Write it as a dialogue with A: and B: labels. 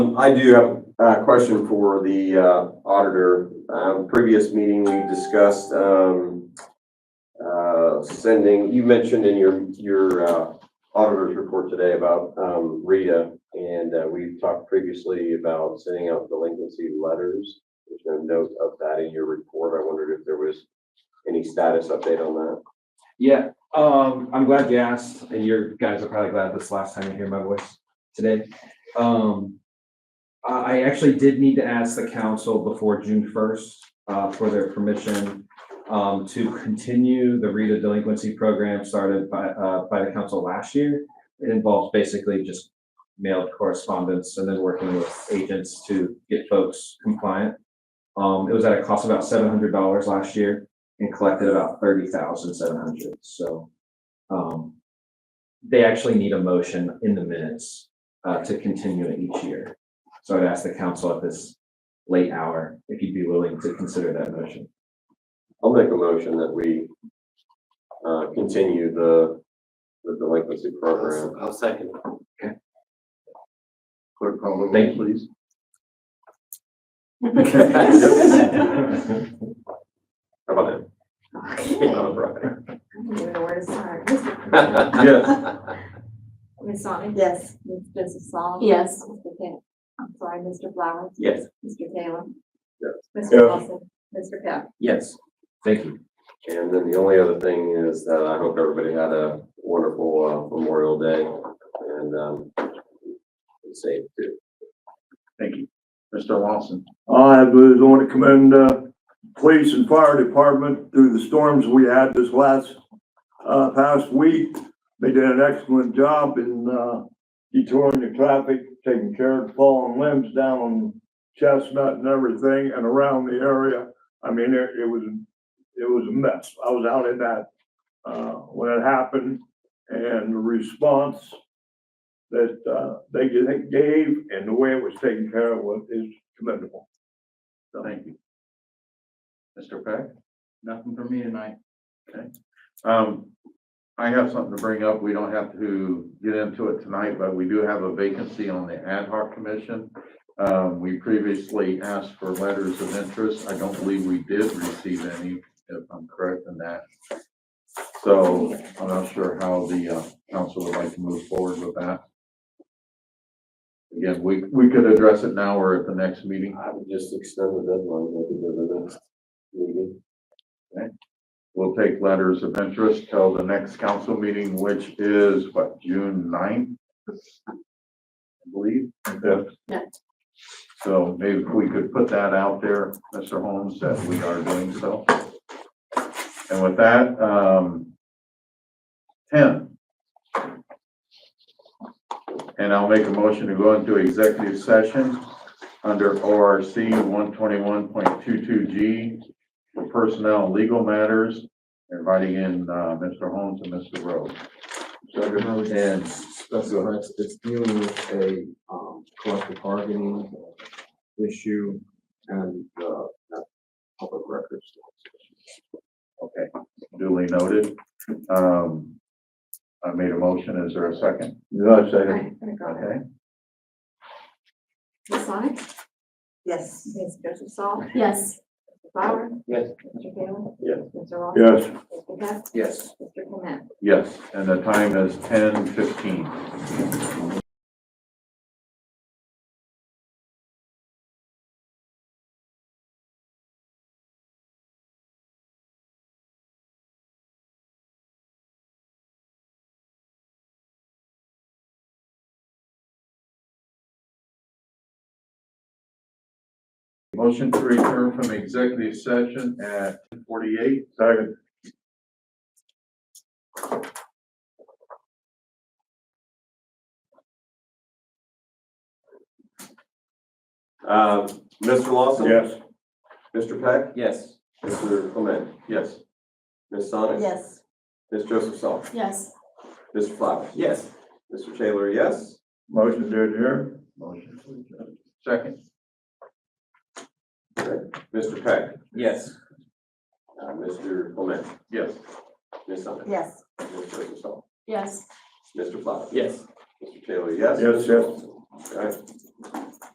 A: I do have a question for the uh, auditor. Um, Previous meeting, we discussed um, uh, sending, you mentioned in your, your uh, auditor's report today about um, Rita, and uh, we talked previously about sending out delinquency letters. There's no note of that in your report. I wondered if there was any status update on that.
B: Yeah, um, I'm glad you asked, and you guys are probably glad this last time you hear my voice today. Um, I, I actually did need to ask the council before June first, uh, for their permission, um, to continue the Rita delinquency program started by, uh, by the council last year. It involves basically just mailed correspondence and then working with agents to get folks compliant. Um, it was at a cost of about seven hundred dollars last year and collected about thirty thousand seven hundred, so. Um, they actually need a motion in the minutes, uh, to continue it each year. So I'd ask the council at this late hour if you'd be willing to consider that motion.
A: I'll make a motion that we uh, continue the the delinquency program.
C: I'll second.
B: Okay.
C: Clerk call the
B: Thank
C: roll, please.
A: How about that?
D: Okay.
A: All right.
D: I'm gonna give it a word of start. Mr.
A: Yes.
D: Ms. Sonic?
E: Yes.
D: Ms. Joseph Sol?
E: Yes.
D: Mr. Taylor? I'm sorry, Mr. Flowers?
C: Yes.
D: Mr. Taylor?
A: Yes.
D: Mr. Wilson? Mr. Peck?
B: Yes, thank you.
A: And then the only other thing is that I hope everybody had a wonderful uh, Memorial Day and um, be safe too.
C: Thank you. Mr. Lawson.
F: I was want to commend, uh, police and fire department through the storms we had this last, uh, past week. They did an excellent job in, uh, detouring the traffic, taking care of fallen limbs down on Chestnut and everything and around the area. I mean, it, it was, it was a mess. I was out in that, uh, when it happened and the response that, uh, they gave and the way it was taken care of was, is commendable.
C: Thank you. Mr. Peck? Nothing for me tonight. Okay. Um, I have something to bring up. We don't have to get into it tonight, but we do have a vacancy on the ad hoc commission. Um, we previously asked for letters of interest. I don't believe we did receive any, if I'm correct in that. So I'm not sure how the, uh, council would like to move forward with that. Again, we, we could address it now or at the next meeting.
A: I would just extend the deadline, make it to the next meeting.
C: We'll take letters of interest till the next council meeting, which is what, June 9th, I believe.
E: Yeah.
C: So maybe we could put that out there, Mr. Holmes, that we are doing so. And with that, um, ten. And I'll make a motion to go into executive session under ORC one twenty-one point two-two G for personnel and legal matters, inviting in, uh, Mr. Holmes and Mr. Rhodes.
G: And specify it's- it's dealing with a um, collective bargaining issue and uh, not public records.
C: Okay, duly noted. Um, I made a motion. Is there a second?
F: No, I
D: All
F: second.
D: right, I'm gonna go there.
C: Okay,
D: Ms. Sonic?
E: Yes.
D: Ms. Joseph Sol?
E: Yes.
D: Mr. Flowers?
G: Yes.
D: Mr. Taylor?
A: Yes.
D: Mr. Lawson?
F: Yes.
D: Mr. Peck?
G: Yes.
D: Mr. Clement?
C: yes, and the time is ten fifteen. Motion to return from executive session at forty-eight. Second.
A: Uh, Mr. Lawson?
F: Yes.
A: Mr. Peck?
B: Yes.
A: Mr. Clement?
C: Yes.
A: Ms. Sonic?
E: Yes.
A: Ms. Joseph Sol?
E: Yes.
A: Mr. Flowers?
B: Yes.
A: Mr. Taylor, yes?
F: Motion to adjourn.
C: Motion to adjourn. Second.
A: Mr. Peck?
B: Yes.
A: Uh, Mr. Clement?
C: Yes.
A: Ms. Sonic?
E: Yes.
A: Ms. Joseph Sol?
E: Yes.
A: Mr. Flowers?
B: Yes.
A: Mr. Taylor, yes?
F: Yes, yes.
A: All right.